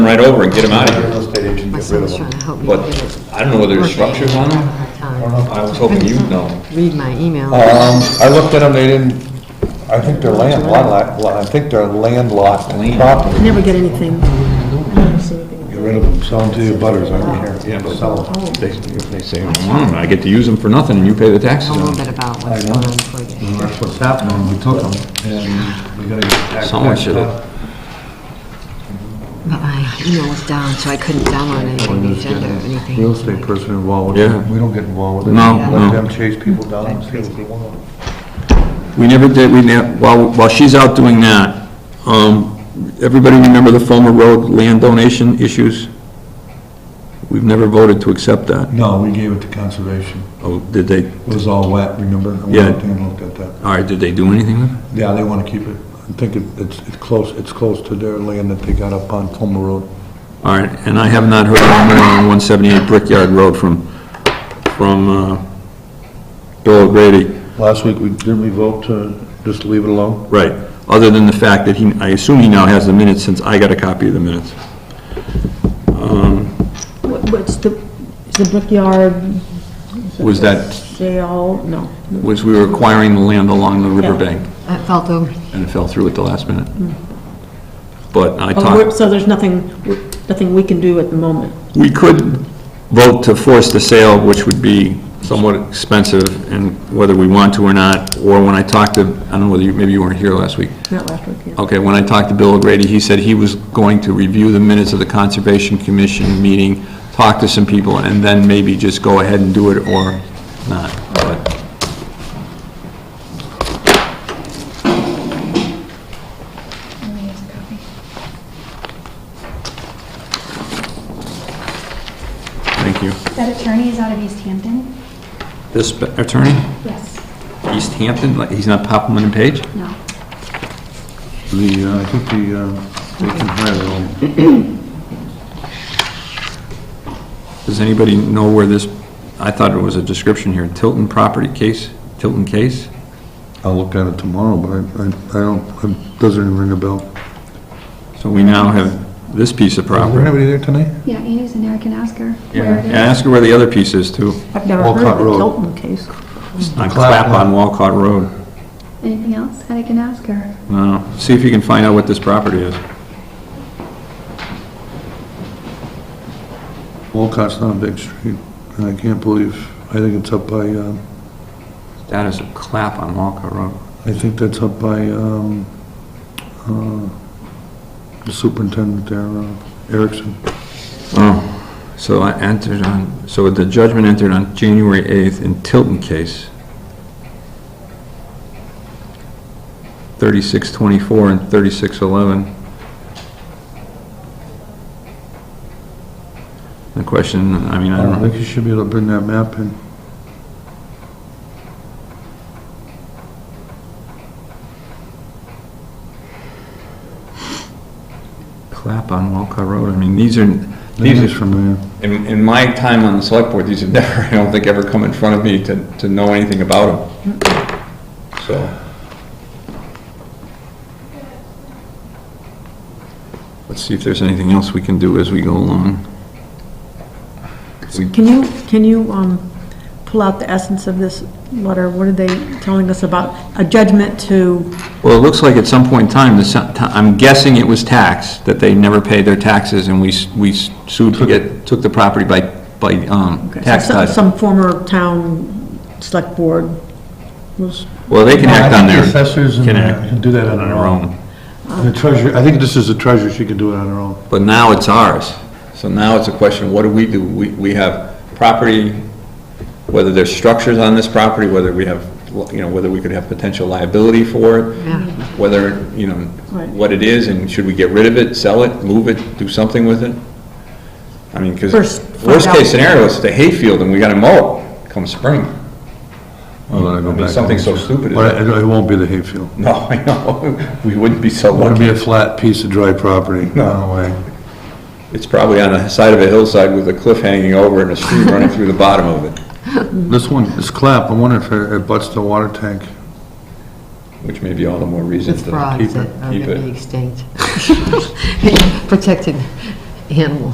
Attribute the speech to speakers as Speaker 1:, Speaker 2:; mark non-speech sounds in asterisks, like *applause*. Speaker 1: over and get them out of
Speaker 2: Real
Speaker 1: here.
Speaker 2: estate agent, get
Speaker 3: My
Speaker 2: rid
Speaker 3: son
Speaker 2: of
Speaker 3: was trying
Speaker 2: them.
Speaker 3: to help me
Speaker 1: But
Speaker 3: get it.
Speaker 1: I don't know whether there's structures on them. I was hoping you'd know. Uh,
Speaker 3: Read my email.
Speaker 2: Um, I looked at them, they didn't, I think they're land, lot- lot- I think they're landlocked property.
Speaker 4: I never get anything. I don't see anything.
Speaker 2: Get rid of them, sell them to your butters, I don't care. Yeah, but sell them, if they, if they say.
Speaker 1: Hmm, I get to use them for nothing and you pay the
Speaker 3: I
Speaker 1: taxes
Speaker 3: know a
Speaker 1: on
Speaker 3: little
Speaker 1: them.
Speaker 3: bit about what's going on before you.
Speaker 2: That's what's happening, we took them, and we gotta get back.
Speaker 1: Someone should've-
Speaker 3: But my email was down, so I couldn't download anything, on the agenda or anything.
Speaker 2: Real estate person involved with
Speaker 1: Yeah.
Speaker 2: it, we don't get involved with it.
Speaker 1: No, no.
Speaker 2: Let them chase people down and see what they want.
Speaker 1: We never did, we, ne- while, while she's out doing that, um, everybody remember the Fulmer Road land donation issues? We've never voted to accept that.
Speaker 2: No, we gave it to conservation,
Speaker 1: Oh, did they,
Speaker 2: it was all wet, remember? We
Speaker 1: Yeah.
Speaker 2: went in and looked at that.
Speaker 1: all right, did they do anything with it?
Speaker 2: Yeah, they want to keep it. I think it- it's, it's close, it's close to their land that they got up on Fulmer Road.
Speaker 1: All right, and I have not heard anything on 178 Brickyard Road from, from uh, Bill O'Grady.
Speaker 2: Last week, we, didn't we vote to just leave it alone?
Speaker 1: Right, other than the fact that he, I assume he now has the minutes since I got a copy of the minutes.
Speaker 4: What- What's the, is the Brickyard
Speaker 1: Was that,
Speaker 4: sale? No.
Speaker 1: was we were acquiring the land along the riverbank,
Speaker 3: That felt over.
Speaker 1: and it fell through at the last minute. But I
Speaker 4: Oh, we're-
Speaker 1: talked,
Speaker 4: So there's nothing, nothing we can do at the moment?
Speaker 1: we could vote to force the sale, which would be somewhat expensive, and whether we want to or not, or when I talked to, I don't know whether you, maybe you weren't here last week,
Speaker 4: Not last week, yeah.
Speaker 1: Okay, when I talked to Bill O'Grady, he said he was going to review the minutes of the Conservation Commission meeting, talk to some people, and then maybe just go ahead and do it or not, but... Thank you.
Speaker 5: That attorney is out of East Hampton?
Speaker 1: This attorney,
Speaker 5: Yes.
Speaker 1: East Hampton, like, he's not Popman and Page?
Speaker 5: No.
Speaker 2: The, uh, I think the, uh, they can hire their own.
Speaker 1: Does anybody know where this, I thought it was a description here, Tilton property case, Tilton case?
Speaker 2: I'll look at it tomorrow, but I, I- I don't, it doesn't even ring a bell.
Speaker 1: So we now have this piece of
Speaker 2: Is there
Speaker 1: property.
Speaker 2: anybody there tonight?
Speaker 5: Yeah, Annie's in there, I can ask her where
Speaker 1: Yeah,
Speaker 5: it
Speaker 1: and
Speaker 5: is.
Speaker 1: ask her where the other piece is too,
Speaker 4: I've never heard
Speaker 2: Walcott
Speaker 4: of the
Speaker 2: Road.
Speaker 4: Tilton case.
Speaker 1: on Clap on Walcott Road.
Speaker 5: Anything else? And I can ask her.
Speaker 1: No, see if you can find out what this property is.
Speaker 2: Walcott's not a big street, and I can't believe, I think it's up by, um,
Speaker 1: That is a clap on Walcott Road.
Speaker 2: I think that's up by, um, uh, the superintendent there, uh, Erickson.
Speaker 1: Oh, so I entered on, so the judgment entered on January 8th in Tilton case. 3624 and 3611. The question, I mean, I
Speaker 2: I
Speaker 1: don't
Speaker 2: think you should be able to bring that map in.
Speaker 1: clap on Walcott Road, I mean, these are,
Speaker 2: These
Speaker 1: these
Speaker 2: is
Speaker 1: are,
Speaker 2: from there.
Speaker 1: in, in my time on the select board, these have *laughs* never, I don't think, ever come in front of me to, to know anything about them. So. Let's see if there's anything else we can do as we go along. We-
Speaker 4: Can you, can you um, pull out the essence of this letter? What are they telling us about? A judgment to,
Speaker 1: Well, it looks like at some point in time, the, se- ti- I'm guessing it was tax, that they never paid their taxes and we, s- we sued to get, took the property by, by, um, tax
Speaker 4: some-
Speaker 1: title.
Speaker 4: some former town select board was,
Speaker 1: Well, they can act on their.
Speaker 2: The assessors and
Speaker 1: can act
Speaker 2: can do that on their own. The treasurer, I think this is the treasurer, she can do it on her own.
Speaker 1: But now it's ours. So now it's a question, what do we do? We, we have property, whether there's structures on this property, whether we have, you know, whether we could have potential liability for it,
Speaker 3: Yeah.
Speaker 1: whether, you know,
Speaker 4: Right.
Speaker 1: what it is, and should we get rid of it, sell it, move it, do something with it? I mean, because
Speaker 4: First, find out.
Speaker 1: worst-case scenario, it's the hayfield, and we gotta mow it come spring. *laughs*
Speaker 2: Well, Oh, then I go
Speaker 1: I mean,
Speaker 2: back to
Speaker 1: something
Speaker 2: the-
Speaker 1: so stupid as
Speaker 2: But it it won't be the hayfield.
Speaker 1: No, I know, we wouldn't be so
Speaker 2: It'll be
Speaker 1: lucky.
Speaker 2: a flat piece of dry property, no way.
Speaker 1: It's probably on the side of a hillside with a cliff hanging over and a stream running through the bottom of it,
Speaker 2: This one, this clap, I wonder if it it butts the water tank.
Speaker 1: which may be all the more reason
Speaker 3: It's
Speaker 1: to
Speaker 3: frogs
Speaker 1: keep
Speaker 3: that *laughs*
Speaker 1: it,
Speaker 3: are
Speaker 1: keep
Speaker 3: going to be
Speaker 1: it.
Speaker 3: extinct. Protected animal.